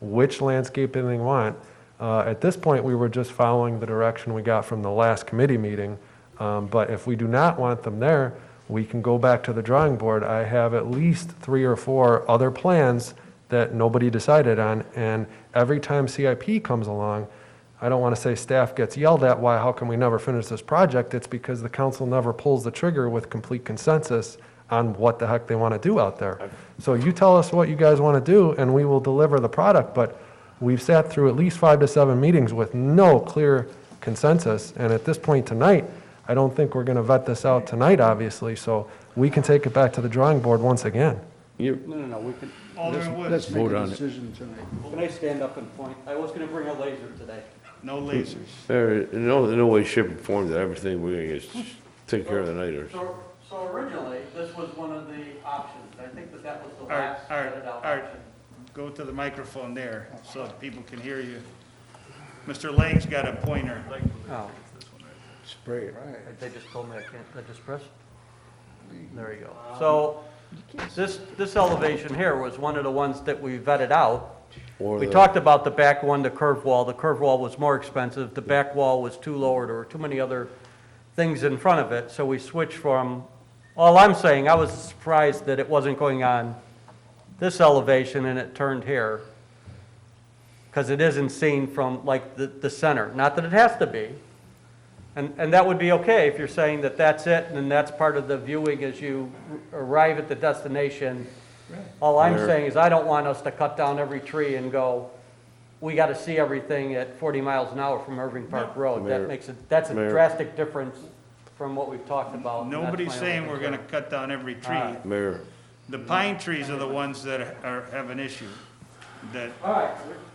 which landscaping they want. Uh, At this point, we were just following the direction we got from the last committee meeting, Um, but if we do not want them there, we can go back to the drawing board. I have at least three or four other plans that nobody decided on, and every time CIP comes along, I don't want to say staff gets yelled at, why, how can we never finish this project? It's because the council never pulls the trigger with complete consensus on what the heck they want to do out there. So you tell us what you guys want to do, and we will deliver the product, but we've sat through at least five to seven meetings with no clear consensus, and at this point tonight, I don't think we're going to vet this out tonight, obviously, so we can take it back to the drawing board once again. You, No, no, no, we could, Alderman Woods, Let's make Vote a on it. decision tonight. can I stand up and point? I was gonna bring a laser today. no lasers. there, in no, in no way, shape, or form that everything we're gonna get, take care of tonight, or, So, so originally, this was one of the options. I think that that was the Art, last Art, vetted out Art. option. Go to the microphone there so that people can hear you. Mr. Lang's got a pointer. Oh, Spray it. Right. they just told me I can't, I just pressed? There you go. So, this, this elevation here was one of the ones that we vetted out. or We the- talked about the back one, the curved wall. The curved wall was more expensive. The back wall was too low, or there were too many other things in front of it, so we switched from, all I'm saying, I was surprised that it wasn't going on this elevation and it turned here, because it isn't seen from, like, the, the center. Not that it has to be. And, and that would be okay if you're saying that that's it, and that's part of the viewing as you r- arrive at the destination. All I'm There. saying is I don't want us to cut down every tree and go, we gotta see everything at 40 miles an hour from Irving Park Road. Mayor- That makes it, that's a Mayor. drastic difference from what we've talked about. and Oh, that's Nobody's my only saying we're concern. gonna cut down every tree. Alright. Mayor, The pine trees are the ones that are, have an issue, that, All right,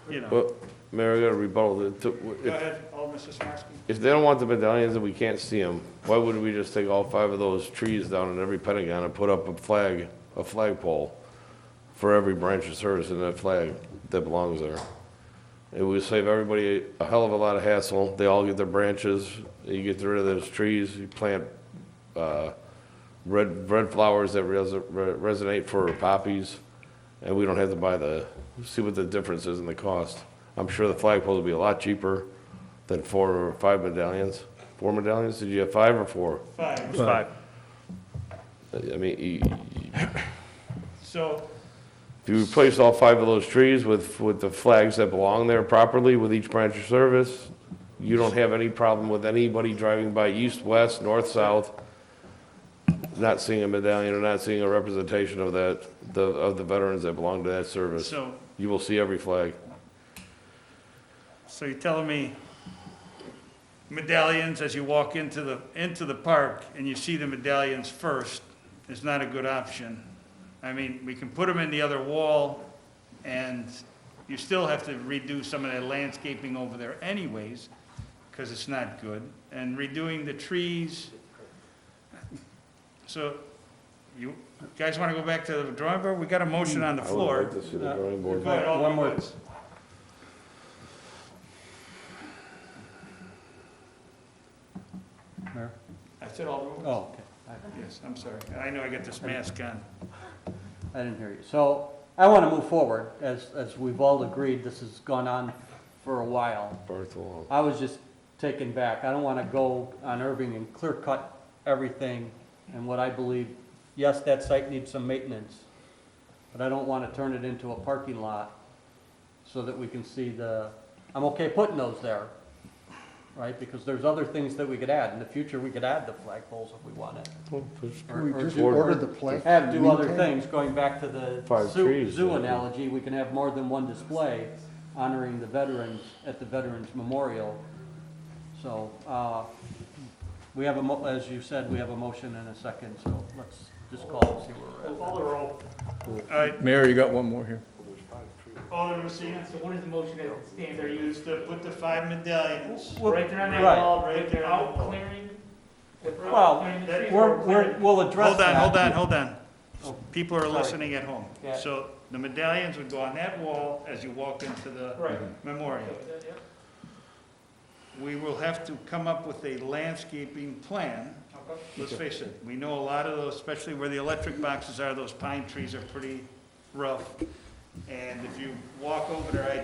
you know. well, Mayor, I gotta rebuttal, it. To- Go if, ahead, Alderman Sismarski. if they don't want the medallions and we can't see them, why wouldn't we just take all five of those trees down in every pentagon and put up a flag, a flagpole for every branch of service in that flag that belongs there? It would save everybody a hell of a lot of hassle, they all get their branches, you get rid of those trees, you plant, uh, red, red flowers that res- re- resonate for poppies, and we don't have to buy the, see what the difference is in the cost. I'm sure the flagpole will be a lot cheaper than four or five medallions. Four medallions? Did you have five or four? Five. Five. I mean, you- So, if you replace all five of those trees with, with the flags that belong there properly with each branch of service, you don't have any problem with anybody driving by east, west, north, south, not seeing a medallion or not seeing a representation of that, the, of the veterans that belong to that service. so, You will see every flag. so you're telling me medallions, as you walk into the, into the park and you see the medallions first, is not a good option. I mean, we can put them in the other wall and you still have to redo some of that landscaping over there anyways, because it's not good. And redoing the trees. So you guys want to go back to the drawing board? We got a motion on the Hmm, I would floor. Uh, like to see the drawing board. Go ahead, Alderman Woods. Mayor? I said Alderman Woods? oh, okay. I- Yes, I'm sorry. I know I got this mask on. I didn't hear you. So I want to move forward, as, as we've all agreed, this has gone on for a while. Bartholomew. I was just taken back. I don't want to go on Irving and clear cut everything and what I believe, yes, that site needs some maintenance, but I don't want to turn it into a parking lot so that we can see the, I'm okay putting those there, right? Because there's other things that we could add. In the future, we could add the flagpoles if we wanted. Can we Or- or just do- order the plant? Have do other Meantime, things, going back to the Five zoo, trees, zoo yeah. analogy, we can have more than one display honoring the veterans at the Veterans Memorial. So, uh, we have a mo, as you said, we have a motion and a second, so let's just call and see where we're at. Call the roll. All right, Mayor, you got one more here. Alderman Messina. So what is the motion that stands? They're used to put the five medallions. Well, Right there on that right. wall, right there. Without clearing, Well, clearing the that- trees. We're, we're, we'll address Hold on, that. hold on, hold on. Oh, People are sorry. listening at home. Yeah. So the medallions would go on that wall as you walk into the Right. memorial. Yeah, We will have to come up with a landscaping plan. yeah. Okay. Let's face it, we know a lot of those, especially where the electric boxes are, those pine trees are pretty rough. And if you walk over there, I